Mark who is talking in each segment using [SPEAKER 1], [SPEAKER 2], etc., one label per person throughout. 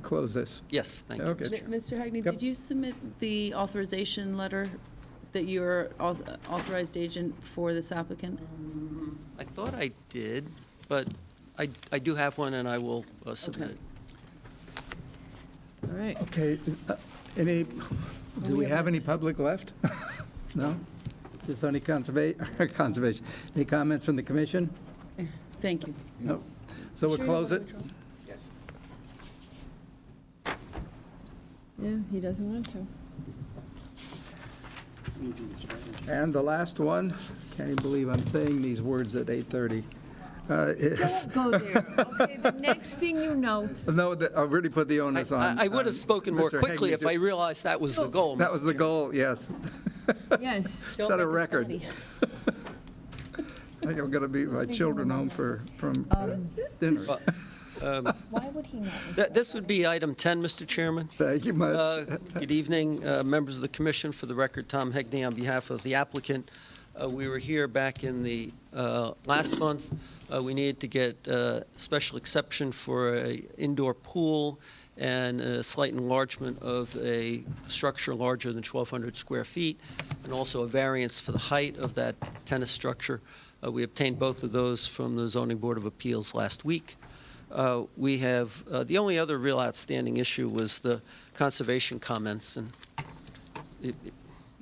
[SPEAKER 1] close this.
[SPEAKER 2] Yes, thank you,
[SPEAKER 1] Okay.
[SPEAKER 2] Mr.
[SPEAKER 1] Mi-
[SPEAKER 2] Chairman.
[SPEAKER 3] Mr. Hagney,
[SPEAKER 1] Yep.
[SPEAKER 3] did you submit the authorization letter that you're auth- authorized agent for this applicant?
[SPEAKER 2] I thought I did, but I, I do have one, and I will uh, submit
[SPEAKER 3] Okay.
[SPEAKER 2] it.
[SPEAKER 3] All right.
[SPEAKER 1] Okay, uh, any, do we have any public left? No? Just only conserva, conservation. Any comments from the commission?
[SPEAKER 3] Thank you.
[SPEAKER 1] No. So we'll close it?
[SPEAKER 4] Yeah, he doesn't want to.
[SPEAKER 1] And the last one, can't even believe I'm saying these words at 8:30. Uh, is-
[SPEAKER 4] Don't go there. Okay, the next thing you know,
[SPEAKER 1] No, that- I really put the
[SPEAKER 2] I-
[SPEAKER 1] onus on.
[SPEAKER 2] I, I would
[SPEAKER 1] on
[SPEAKER 2] have spoken more
[SPEAKER 1] Mr.
[SPEAKER 2] quickly
[SPEAKER 1] Hegney
[SPEAKER 2] if
[SPEAKER 1] to-
[SPEAKER 2] I realized that was the goal.
[SPEAKER 1] That
[SPEAKER 2] Mr.
[SPEAKER 1] was the
[SPEAKER 2] Chairman.
[SPEAKER 1] goal, yes.
[SPEAKER 4] yes.
[SPEAKER 1] Set a record. I think I'm going to be my children home for, from uh,
[SPEAKER 4] Um,
[SPEAKER 1] dinner.
[SPEAKER 5] Why would he not?
[SPEAKER 2] Th- This would be item 10, Mr. Chairman.
[SPEAKER 1] Thank you much.
[SPEAKER 2] Uh, Good evening, uh, members of the commission. For the record, Tom Hegney on behalf of the applicant. Uh, We were here back in the uh, last month. Uh, We needed to get uh, special exception for a indoor pool and a slight enlargement of a structure larger than 1,200 square feet, and also a variance for the height of that tennis structure. Uh, We obtained both of those from the Zoning Board of Appeals last week. Uh, We have, uh, the only other real outstanding issue was the conservation comments, and it- it-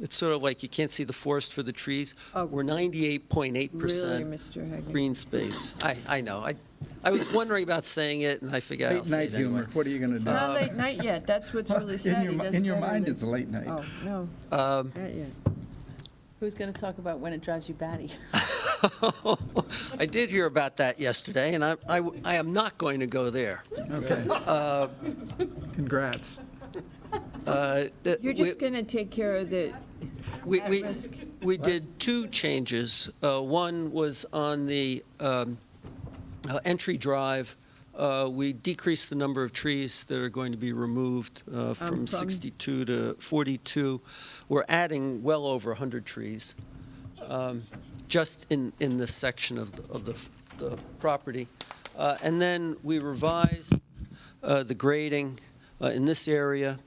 [SPEAKER 2] it's sort of like you can't see the forest for the trees.
[SPEAKER 4] Oh.
[SPEAKER 2] We're 98.8
[SPEAKER 4] Really,
[SPEAKER 2] percent
[SPEAKER 4] Mr. Hagney.
[SPEAKER 2] green space. I, I know, I, I was wondering about saying it, and I forgot I'll
[SPEAKER 1] Late
[SPEAKER 2] say
[SPEAKER 1] night
[SPEAKER 2] it anyway.
[SPEAKER 1] humor, what are you going to
[SPEAKER 4] It's
[SPEAKER 1] do?
[SPEAKER 4] not late night yet, that's what's really sad. He
[SPEAKER 1] In your,
[SPEAKER 4] doesn't
[SPEAKER 1] in your
[SPEAKER 4] get
[SPEAKER 1] mind,
[SPEAKER 4] it.
[SPEAKER 1] it's late night.
[SPEAKER 4] Oh, no,
[SPEAKER 2] Um,
[SPEAKER 4] not yet.
[SPEAKER 3] Who's going to talk about when it drives you batty?
[SPEAKER 2] I did hear about that yesterday, and I, I w- I am not going to go there.
[SPEAKER 1] Okay. Uh, Congrats.
[SPEAKER 2] Uh, th-
[SPEAKER 4] You're
[SPEAKER 2] we-
[SPEAKER 4] just going to take care of the,
[SPEAKER 2] We,
[SPEAKER 4] At
[SPEAKER 2] we,
[SPEAKER 4] risk.
[SPEAKER 2] we did two changes. Uh, One was on the um, uh, entry drive. Uh, We decreased the number of trees that are going to be removed uh, from
[SPEAKER 4] from-
[SPEAKER 2] 62 to 42. We're adding well over 100 trees, um, just in, in this section of, the- of the, the property. Uh, And then we revised uh, the grading uh, in this area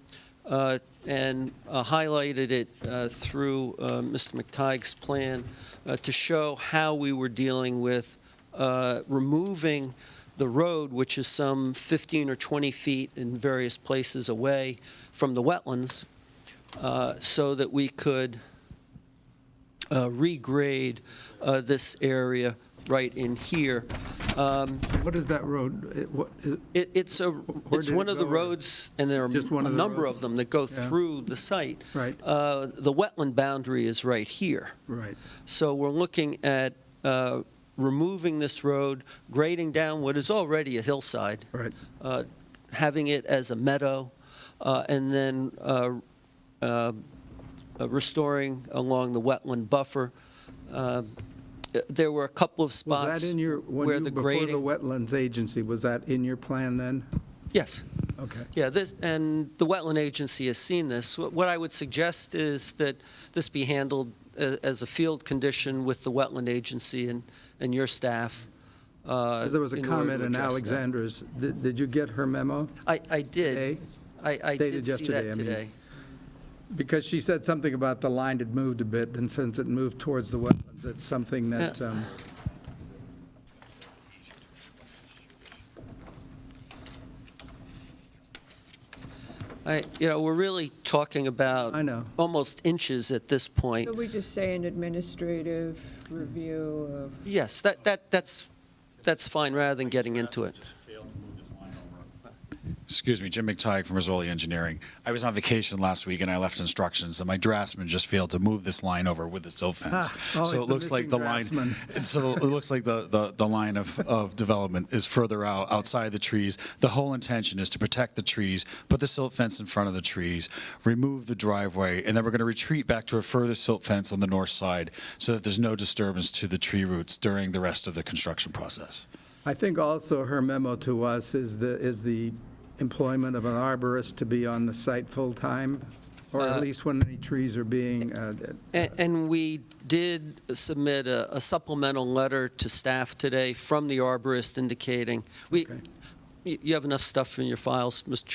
[SPEAKER 2] uh, and uh, highlighted it uh, through uh, Mr. McTighe's plan uh, to show how we were dealing with uh, removing the road, which is some 15 or 20 feet in various places away from the wetlands, uh, so that we could uh, regrade uh, this area right in here. Um,
[SPEAKER 1] What is that road? It- what- it-
[SPEAKER 2] it, it's a, it's
[SPEAKER 1] did it
[SPEAKER 2] one of the
[SPEAKER 1] go, or-
[SPEAKER 2] roads, and there are
[SPEAKER 1] Just one
[SPEAKER 2] a
[SPEAKER 1] of the
[SPEAKER 2] number
[SPEAKER 1] roads?
[SPEAKER 2] of them that go
[SPEAKER 1] Yeah.
[SPEAKER 2] through the site.
[SPEAKER 1] Right.
[SPEAKER 2] Uh, The wetland boundary is right here.
[SPEAKER 1] Right.
[SPEAKER 2] So we're looking at uh, removing this road, grading down what is already a hillside.
[SPEAKER 1] Right.
[SPEAKER 2] uh, Having it as a meadow, uh, and then uh, uh, restoring along the wetland buffer. Uh, There were a couple of spots where
[SPEAKER 1] Was
[SPEAKER 2] the
[SPEAKER 1] that in
[SPEAKER 2] grading.
[SPEAKER 1] your, when you, before the wetlands agency, was that in your plan then?
[SPEAKER 2] Yes.
[SPEAKER 1] Okay.
[SPEAKER 2] Yeah, this, and the wetland agency has seen this. What what I would suggest is that this be handled a- as a field condition with the wetland agency and, and your staff. uh,
[SPEAKER 1] Because there was a comment in Alexandra's, did did you get her memo?
[SPEAKER 2] I, I did.
[SPEAKER 1] Today?
[SPEAKER 2] I, I did
[SPEAKER 1] Dated
[SPEAKER 2] see
[SPEAKER 1] yesterday,
[SPEAKER 2] that
[SPEAKER 1] I mean.
[SPEAKER 2] today.
[SPEAKER 1] Because she said something about the line had moved a bit, and since it moved towards the wetlands, it's something that,
[SPEAKER 2] Yeah.
[SPEAKER 1] um,
[SPEAKER 2] I, you know, we're really talking about.
[SPEAKER 1] I know.
[SPEAKER 2] Almost inches at this point.
[SPEAKER 4] so we just say an administrative review of,
[SPEAKER 2] Yes, that, that, that's, that's fine, rather than getting into it.
[SPEAKER 6] Excuse me, Jim McTighe from Rizzoli Engineering. I was on vacation last week and I left instructions and my draftsman just failed to move this line over with the silt fence.
[SPEAKER 1] Ah, always
[SPEAKER 6] So it
[SPEAKER 1] the
[SPEAKER 6] looks like
[SPEAKER 1] missing
[SPEAKER 6] the line,
[SPEAKER 1] draftsman.
[SPEAKER 6] and so it looks like the, the, the line of, of development is further out, outside the trees. The whole intention is to protect the trees, put the silt fence in front of the trees, remove the driveway, and then we're going to retreat back to a further silt fence on the north side so that there's no disturbance to the tree roots during the rest of the construction process.
[SPEAKER 1] I think also her memo to us is the, is the employment of an arborist to be on the site full-time, or at
[SPEAKER 2] Uh,
[SPEAKER 1] least when any trees are being, uh,
[SPEAKER 2] A- And we did submit a a supplemental letter to staff today from the arborist indicating, we,
[SPEAKER 1] Okay.
[SPEAKER 2] you you have enough stuff in your files, Mr.